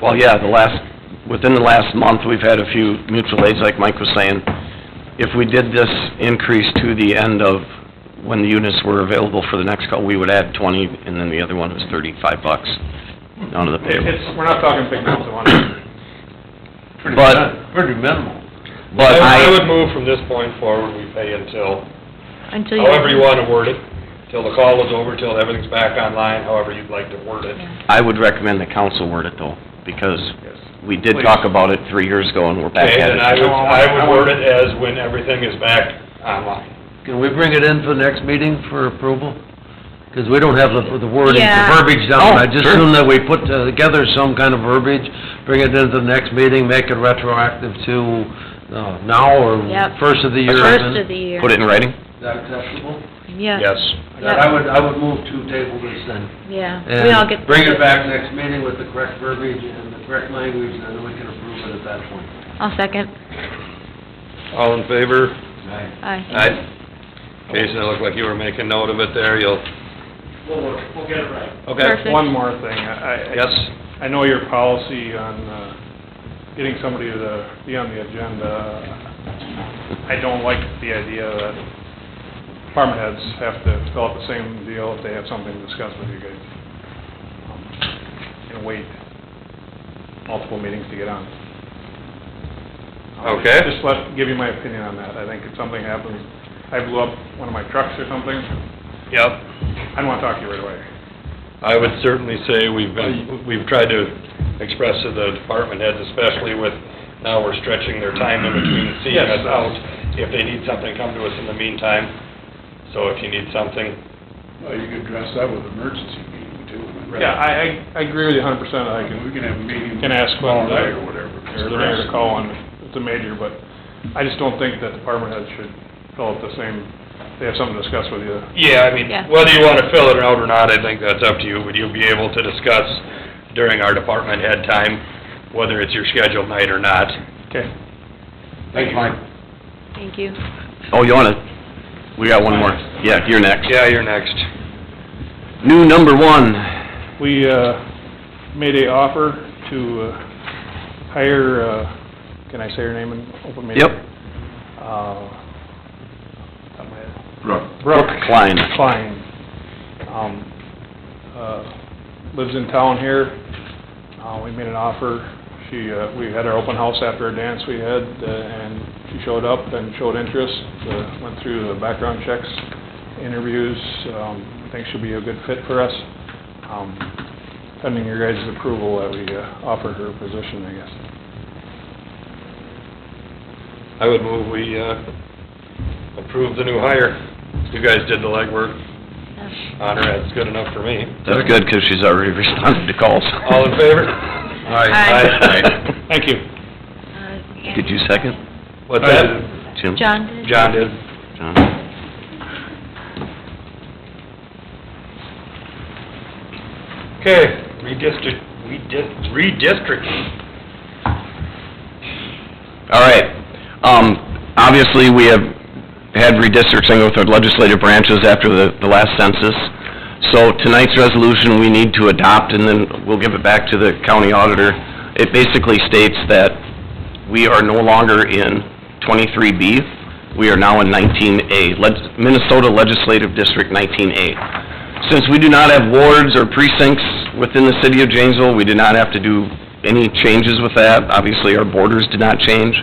Well, yeah, the last, within the last month, we've had a few mutual aids, like Mike was saying. If we did this increase to the end of when the units were available for the next call, we would add twenty, and then the other one was thirty-five bucks onto the It- payroll. It's, we're not talking big amounts of money. Pretty But- min- Pretty minimal. But I would I, move from this point forward, we pay until, Until you... however you want to word it, till the call is over, till everything's back online, however you'd like to word it. I would recommend the council word it though, because Yes. we did talk about it three years ago and we're back Okay, at then I it. would, I would word it as when everything is back online. Can we bring it in for the next meeting for approval? Because we don't have the the wording, the Yeah. verbiage down. Oh, I just sure. assume that we put together some kind of verbiage, bring it into the next meeting, make it retroactive to uh, now or Yep. first of the year. First of the year. Put it in writing? Is that acceptable? Yeah. That I would, I would move to table this then. Yeah, we all And get... bring it back next meeting with the correct verbiage and the correct language, and then we can approve it at that point. I'll second. All in favor? Mm-hmm. Aye. Aye. Jason, it looked like you were making note of it there, you'll... We'll, work- we'll get it right. Okay. Perfect. One more thing, I, I- Yes? I know your policy on uh, getting somebody to the- be on the agenda. I don't like the idea that department heads have to fill out the same deal if they have something to discuss with you guys. And wait multiple meetings to get on. Um, Okay. Just let, give you my opinion on that. I think if something happens, I blew up one of my trucks or something, Yep. I don't want to talk to you right away. I would certainly say we've been, we've tried to express to the department heads, especially with, now we're stretching their time in between seeing us Yes. out. If they need something, come to us in the meantime. So if you need something, Well, you could address that with emergency meeting too. Yeah, I, I I agree with you a hundred percent, I We can, can have a meeting. can ask Tomorrow when night the, or whatever. or the mayor to call on, it's a major, but I just don't think that department heads should fill out the same, they have something to discuss with you. yeah, I mean, Yeah. whether you wanna fill it out or not, I think that's up to you. Would you be able to discuss during our department head time, whether it's your scheduled night or not? Okay. Thank you, Mike. Thank you. Oh, you wanna, we got Uh, one more. Yeah, you're next. Yeah, you're next. New number one. We, uh, made a offer to uh, hire, uh, can I say her name in open meeting? Yep. Uh, top of my head. Brooke. Brooke Klein. Klein. Um, uh, lives in town here. Uh, we made an offer. She, uh, we had our open house after a dance we had, uh, and she showed up and showed interest. Uh, went through the background checks, interviews. Um, I think she'll be a good fit for us. Um, pending your guys' approval that we, uh, offered her a position, I guess. I would move we, uh, approve the new hire. You guys did the legwork on her, that's good enough for me. That's good, 'cause she's already responded to calls. All in favor? Aye. Thank you. Uh, Did you second? What's that? Jim? John did? John did. John. Okay, redistrict, redis- redistricting. All right. Um, obviously, we have had redistricting with our legislative branches after the, the last census. So tonight's resolution, we need to adopt, and then we'll give it back to the county auditor. It basically states that we are no longer in 23B, we are now in 19A, Leg- Minnesota Legislative District 19A. Since we do not have wards or precincts within the city of Janesville, we do not have to do any changes with that. Obviously, our borders did not change.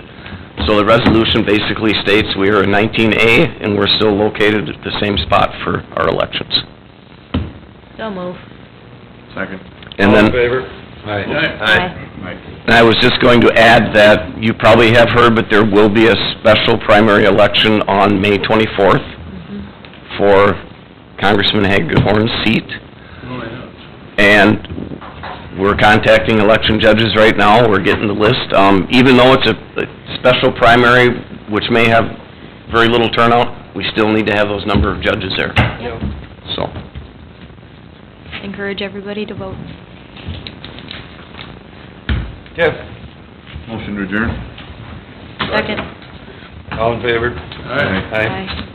So the resolution basically states we are in 19A, and we're still located at the same spot for our elections. So move. Second. And All then... in favor? Aye. Mike. And I was just going to add that you probably have heard, but there will be a special primary election on May 24th for Congressman Hagahorn's seat. And we're contacting election judges right now, we're getting the list. Um, even though it's a, a special primary, which may have very little turnout, we still need to have those number of judges there, Yep. so. Encourage everybody to vote. Yeah. Motion to adjourn. Second. All in favor? Aye. Aye.